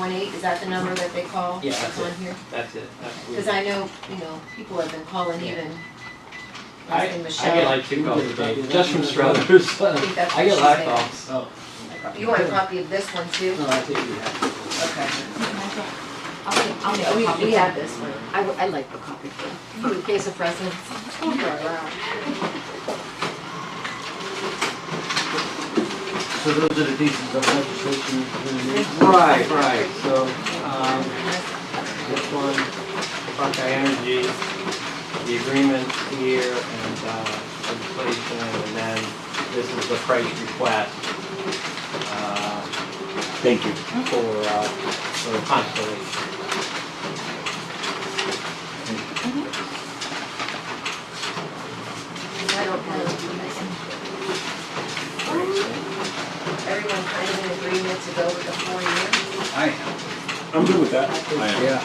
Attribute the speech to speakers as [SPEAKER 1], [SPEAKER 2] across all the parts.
[SPEAKER 1] Is that the number that they call?
[SPEAKER 2] Yeah,
[SPEAKER 1] that's
[SPEAKER 2] that's
[SPEAKER 1] on here?
[SPEAKER 2] That's it. That's
[SPEAKER 1] Cause
[SPEAKER 2] weird.
[SPEAKER 1] I know, you know, people have been calling
[SPEAKER 2] Yeah.
[SPEAKER 1] even. Asking
[SPEAKER 2] I- I get
[SPEAKER 1] Michelle,
[SPEAKER 2] like two calls a day, just from Struthers.
[SPEAKER 1] I think that's
[SPEAKER 2] I
[SPEAKER 1] what
[SPEAKER 2] get
[SPEAKER 1] she's
[SPEAKER 2] a lot of
[SPEAKER 1] saying.
[SPEAKER 2] calls.
[SPEAKER 3] Oh,
[SPEAKER 1] You want a copy of this one too?
[SPEAKER 2] Oh,
[SPEAKER 3] no, I think you have.
[SPEAKER 1] Okay.
[SPEAKER 4] I'll make, I'll make a
[SPEAKER 1] We, we
[SPEAKER 4] copy.
[SPEAKER 1] have this one.
[SPEAKER 4] I, would- I like the copy.
[SPEAKER 1] In case of precedence.
[SPEAKER 3] So those are the pieces of legislation we're gonna need.
[SPEAKER 2] Right, right, so, um, this one, Buckeye Energy, the agreement here and, uh, legislation, and then this is the price request, uh,
[SPEAKER 5] Thank you.
[SPEAKER 2] for, uh, for Constellation.
[SPEAKER 1] I don't know. Everyone kind of in agreement to go with the four year?
[SPEAKER 3] I
[SPEAKER 5] I'm good with that.
[SPEAKER 3] Yeah.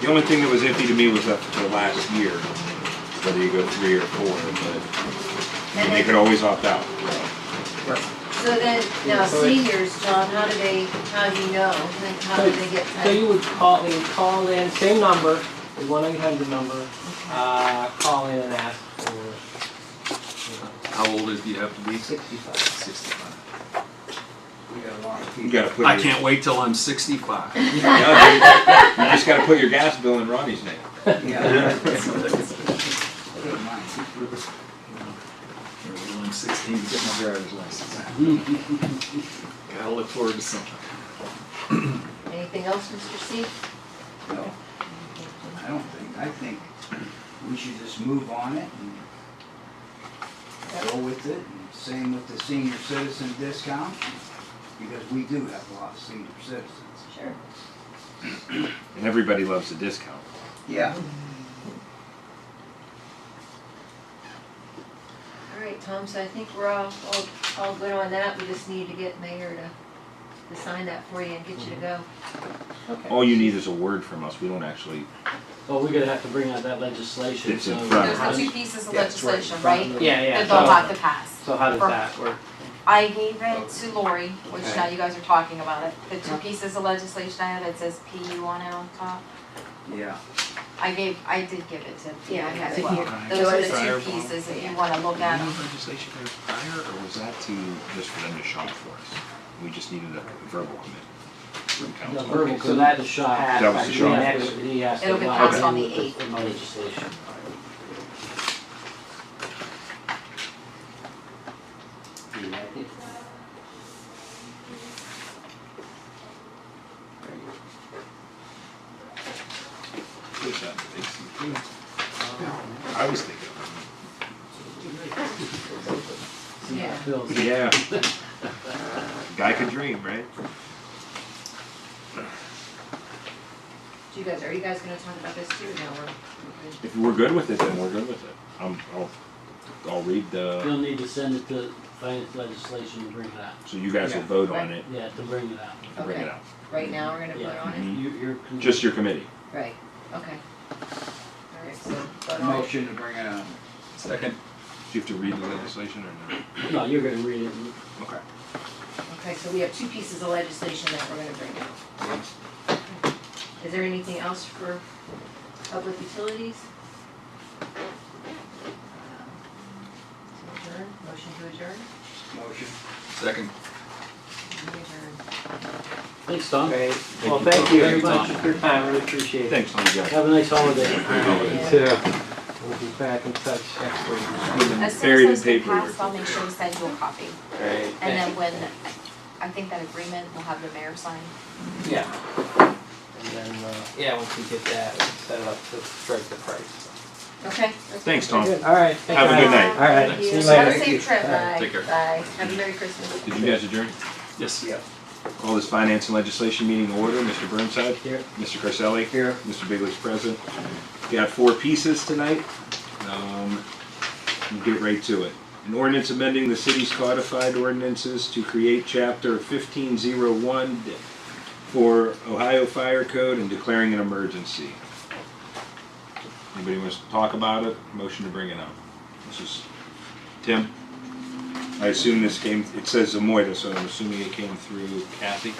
[SPEAKER 5] The only thing that was empty to me was up to last year, whether you go three or four, but
[SPEAKER 1] And
[SPEAKER 5] they
[SPEAKER 1] then-
[SPEAKER 5] could always opt out.
[SPEAKER 1] So then, now seniors, John, how do they, how do you know? Like, how do they get?
[SPEAKER 2] So you would call, they would call in, same number, the one eight hundred number, uh, call in and ask for, you know,
[SPEAKER 6] How old is do you have to be?
[SPEAKER 2] sixty-five.
[SPEAKER 6] Sixty-five.
[SPEAKER 3] We got a lot of
[SPEAKER 5] You
[SPEAKER 3] people.
[SPEAKER 5] gotta put.
[SPEAKER 6] I
[SPEAKER 5] your-
[SPEAKER 6] can't wait till I'm sixty-five.
[SPEAKER 5] Yeah, dude. You just gotta put your gas bill in Ronnie's name.
[SPEAKER 3] Yeah. I don't mind.
[SPEAKER 6] I'm sixteen, get my driver's license.
[SPEAKER 3] Mm-hmm.
[SPEAKER 6] Gotta look forward to something.
[SPEAKER 1] Anything else, Mr. C?
[SPEAKER 3] No, I don't think, I think we should just move on it and go with it. And Same with the senior citizen discount, because we do have a lot of senior citizens.
[SPEAKER 1] Sure.
[SPEAKER 5] And everybody loves a discount.
[SPEAKER 3] Yeah.
[SPEAKER 1] All right, Tom, so I think we're all, all, all good on that. We just need to get Mayor to, to sign that for you and get you to go.
[SPEAKER 5] All you need is a word from us. We don't actually,
[SPEAKER 7] Well, we're gonna have to bring out that legislation,
[SPEAKER 5] It's
[SPEAKER 7] so.
[SPEAKER 5] in front
[SPEAKER 4] There's the two pieces of
[SPEAKER 3] Yeah, it's right in
[SPEAKER 4] legislation,
[SPEAKER 3] front
[SPEAKER 4] right?
[SPEAKER 3] of
[SPEAKER 2] Yeah,
[SPEAKER 4] That
[SPEAKER 2] yeah,
[SPEAKER 4] they'll
[SPEAKER 2] so,
[SPEAKER 4] have to pass.
[SPEAKER 2] so how does that work?
[SPEAKER 4] I gave it to Lori, which
[SPEAKER 2] Okay.
[SPEAKER 4] now you guys are talking about it, the two pieces of legislation I had, it says PU on it on top.
[SPEAKER 3] Yeah.
[SPEAKER 4] I gave, I did give it to
[SPEAKER 1] Yeah,
[SPEAKER 4] you
[SPEAKER 1] I have
[SPEAKER 4] as
[SPEAKER 1] it
[SPEAKER 4] well.
[SPEAKER 1] here.
[SPEAKER 4] Those are the
[SPEAKER 5] Fireball.
[SPEAKER 4] two pieces, if you wanna look at them.
[SPEAKER 5] legislation there prior, or was that to, just for them to shop for us? We just needed a verbal commitment
[SPEAKER 7] The
[SPEAKER 5] from council.
[SPEAKER 7] verbal, so that is shot.
[SPEAKER 2] That
[SPEAKER 5] was the shot.
[SPEAKER 7] He has to.
[SPEAKER 4] It'll be
[SPEAKER 7] line
[SPEAKER 4] passed
[SPEAKER 7] in
[SPEAKER 4] on the
[SPEAKER 7] with
[SPEAKER 4] 8th.
[SPEAKER 7] in the legislation.
[SPEAKER 3] Do you like it?
[SPEAKER 5] Push that to AC. I was thinking.
[SPEAKER 7] See how it
[SPEAKER 1] Yeah.
[SPEAKER 7] feels.
[SPEAKER 5] Yeah. Guy could dream, right?
[SPEAKER 1] Do you guys, are you guys gonna talk about this too? No, we're,
[SPEAKER 5] If we're good with it, then we're good with it. Um, I'll, I'll read the,
[SPEAKER 7] You'll need to send it to finance legislation to bring it out,
[SPEAKER 5] so you guys will vote on it
[SPEAKER 7] yeah, to bring it out.
[SPEAKER 5] and bring it out. Mm-hmm.
[SPEAKER 1] right now, we're gonna put it on it?
[SPEAKER 3] You, you're.
[SPEAKER 5] Just your committee.
[SPEAKER 1] Right, okay. All right, so, but all,
[SPEAKER 3] Motion to bring it on.
[SPEAKER 6] Second.
[SPEAKER 5] Do you have to read the legislation or no?
[SPEAKER 7] No, you're gonna read it,
[SPEAKER 5] Okay.
[SPEAKER 1] okay, so we have two pieces of legislation that we're gonna bring out. Is there anything else for public utilities? Uh, To Adjourn, motion to adjourn?
[SPEAKER 3] Motion.
[SPEAKER 6] Second.
[SPEAKER 1] We adjourn.
[SPEAKER 7] thanks, Tom,
[SPEAKER 2] Great, well,
[SPEAKER 5] Thank
[SPEAKER 2] thank you very
[SPEAKER 5] you.
[SPEAKER 7] Thank you,
[SPEAKER 2] much
[SPEAKER 7] Tom.
[SPEAKER 2] for your time, really appreciate it.
[SPEAKER 5] Thanks, Tom, you guys.
[SPEAKER 7] have a nice holiday.
[SPEAKER 1] Yeah.
[SPEAKER 2] too.
[SPEAKER 5] uh,
[SPEAKER 2] We'll be back in touch next week.
[SPEAKER 4] As soon
[SPEAKER 5] Buried in
[SPEAKER 4] as those get
[SPEAKER 5] paperwork.
[SPEAKER 4] passed, I'll make sure to send you a copy.
[SPEAKER 2] Great.
[SPEAKER 4] And then when, I think that agreement will have the mayor sign.
[SPEAKER 2] Yeah. And then, uh, yeah, once we get that, we can set it up to strike the price.
[SPEAKER 1] Okay. that's
[SPEAKER 5] Thanks,
[SPEAKER 1] good.
[SPEAKER 5] Tom.
[SPEAKER 2] Good, All right. thank
[SPEAKER 5] Have a
[SPEAKER 2] you.
[SPEAKER 5] good night.
[SPEAKER 2] All right,
[SPEAKER 1] Thank
[SPEAKER 2] see you
[SPEAKER 1] you.
[SPEAKER 2] later.
[SPEAKER 1] Have a
[SPEAKER 3] Thank you.
[SPEAKER 1] safe trip. Bye.
[SPEAKER 6] Take care.
[SPEAKER 1] Bye. Have a Merry Christmas.
[SPEAKER 5] Did you guys adjourn?
[SPEAKER 6] Yes.
[SPEAKER 3] Yeah.
[SPEAKER 5] Call this finance and legislation meeting to order. Mr. Burnside?
[SPEAKER 7] Here.
[SPEAKER 5] Mr. Carselli?
[SPEAKER 3] Here.
[SPEAKER 5] Mr. Bigley's present. We got four pieces tonight. Um, we'll get right to it. An ordinance amending the city's codified ordinances to create chapter fifteen zero one for Ohio Fire Code and declaring an emergency. Anybody wants to talk about it? Motion to bring it up. This is, Tim? I assume this came, it says Amoyda, so I'm assuming it came through Kathy?